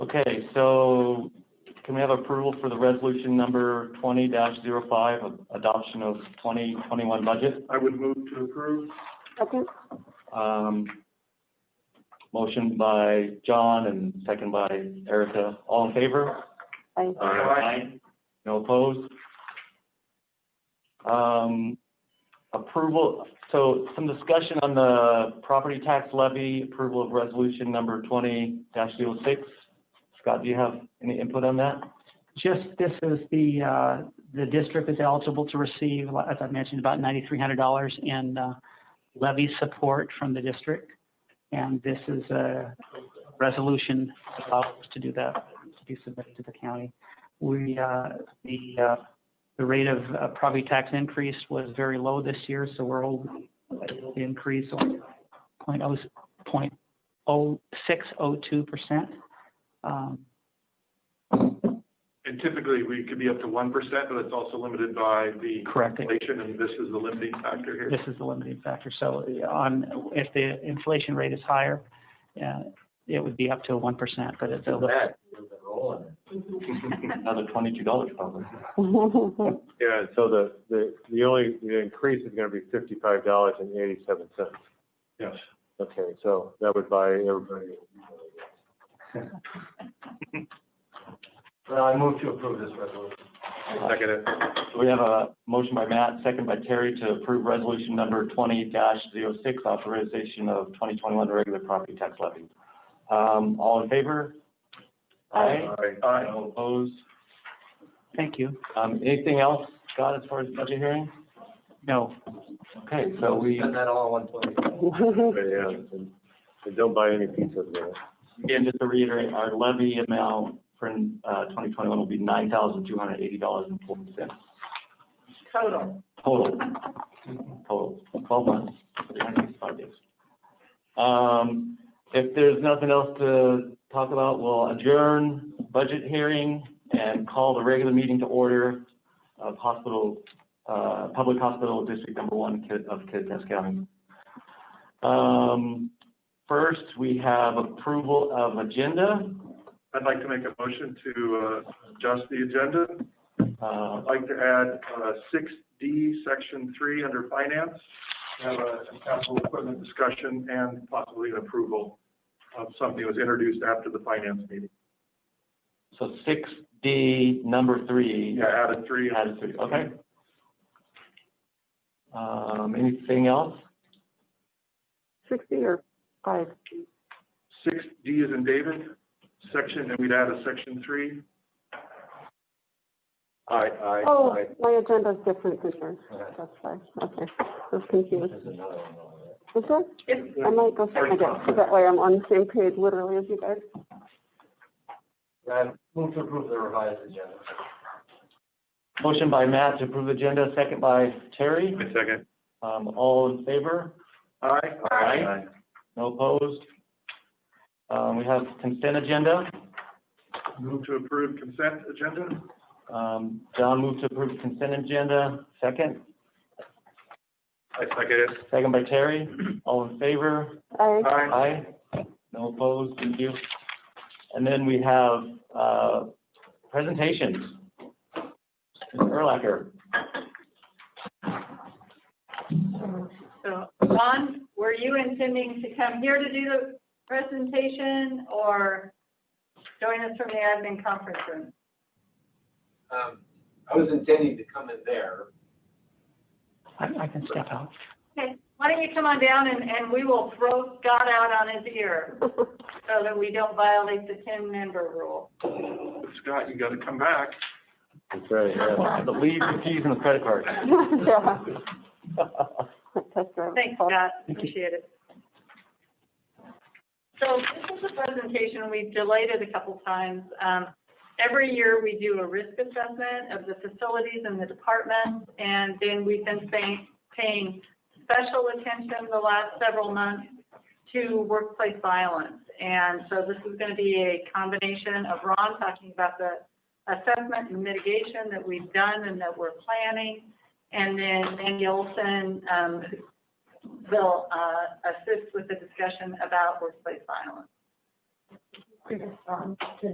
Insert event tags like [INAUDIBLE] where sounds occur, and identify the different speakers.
Speaker 1: Okay, so can we have approval for the resolution number twenty 5 adoption of twenty twenty-one budget?
Speaker 2: I would move to approve.
Speaker 3: [LAUGHS]
Speaker 4: Second?
Speaker 1: Um, motion by John and second by Erica. All in favor?
Speaker 4: Aye.
Speaker 2: Aye.
Speaker 1: No opposed? Um, approval, so some discussion on the property tax levy, approval of resolution number twenty 6 Scott, do you have any input on that?
Speaker 5: Just, this is the, uh, the district is eligible to receive, as I mentioned, about ninety-three hundred dollars in uh, levy support from the district. And this is a resolution that allows us to do that, to be submitted to the county. We, uh, the, uh, the rate of uh, property tax increase was very low this year, so we're all, the increase on point oh, point oh, six oh two percent. Um,
Speaker 2: And typically, we could be up to one percent, but it's also limited by the
Speaker 5: Correct.
Speaker 2: inflation, and this is the limiting factor here.
Speaker 5: this is the limiting factor. So uh, on, if the inflation rate is higher, uh, it would be up to one percent, but it's a little.
Speaker 1: Another twenty-two dollars probably.
Speaker 6: Yeah, so the, the, the only, the increase is gonna be fifty-five dollars and eighty-seven cents.
Speaker 2: Yes.
Speaker 6: Okay, so that would buy everybody.
Speaker 3: Well, I move to approve this resolution.
Speaker 2: Second it.
Speaker 1: So we have a motion by Matt, second by Terry to approve resolution number twenty 6 authorization of twenty twenty-one regular property tax levy. Um, all in favor? Aye.
Speaker 2: Aye.
Speaker 1: No opposed?
Speaker 5: Thank you.
Speaker 1: Um, anything else, Scott, as far as budget hearing?
Speaker 5: No,
Speaker 1: Okay, so we,
Speaker 3: Spend that all in one place.
Speaker 6: But yeah, and, and don't buy any piece of that.
Speaker 1: again, just to reiterate, our levy amount for, uh, twenty twenty-one will be nine thousand two hundred eighty dollars and forty cents.
Speaker 4: Total.
Speaker 1: Total, total, twelve months, three hundred sixty-five days. Um, if there's nothing else to talk about, we'll adjourn budget hearing and call the regular meeting to order of hospital, uh, Public Hospital District Number One Kid- of Kittitas County. Um, first, we have approval of agenda,
Speaker 2: I'd like to make a motion to, uh, adjust the agenda.
Speaker 1: uh,
Speaker 2: I'd like to add, uh, six D, section three, under finance, have a capital equipment discussion and possibly an approval of something that was introduced after the finance meeting.
Speaker 1: so six D, number three.
Speaker 2: Yeah, added three.
Speaker 1: Added three, okay. Um, anything else?
Speaker 4: Sixty or five?
Speaker 2: Six D is in David, section, and we'd add a section three.
Speaker 3: Aye, aye,
Speaker 4: Oh, my agenda's different than yours. That's why, okay. I was confused.
Speaker 3: There's another one over there.
Speaker 4: Is there? I might go check my desk, so that way I'm on the same page literally as you guys.
Speaker 3: I move to approve the revised agenda.
Speaker 1: Motion by Matt to approve agenda, second by Terry.
Speaker 2: Wait a second.
Speaker 1: Um, all in favor?
Speaker 2: Aye.
Speaker 1: Aye. No opposed? Um, we have consent agenda.
Speaker 2: Move to approve consent agenda.
Speaker 1: Um, John moved to approve consent agenda, second,
Speaker 2: I second it.
Speaker 1: second by Terry. All in favor?
Speaker 4: I,
Speaker 2: Aye.
Speaker 1: Aye. No opposed, thank you. And then we have, uh, presentations. Mr. Erlacher.
Speaker 7: So, Ron, were you intending to come here to do the presentation or join us from the admin conference room?
Speaker 8: Um, I was intending to come in there.
Speaker 5: I, I can step out.
Speaker 7: Okay, why don't you come on down and, and we will throw Scott out on his ear so that we don't violate the ten-member rule.
Speaker 2: Scott, you gotta come back.
Speaker 6: That's right, yeah.
Speaker 1: The lead, the keys, and the credit card.
Speaker 4: [LAUGHS]
Speaker 1: [LAUGHS]
Speaker 4: yeah. Test drive.
Speaker 7: Thanks, Scott, appreciate it. So this is a presentation, we've delayed it a couple times. Um, every year we do a risk assessment of the facilities and the departments, and then we've been paying, paying special attention the last several months to workplace violence. And so this is gonna be a combination of Ron talking about the assessment and mitigation that we've done and that we're planning, and then Mandy Olson, um, will uh, assist with the discussion about workplace violence.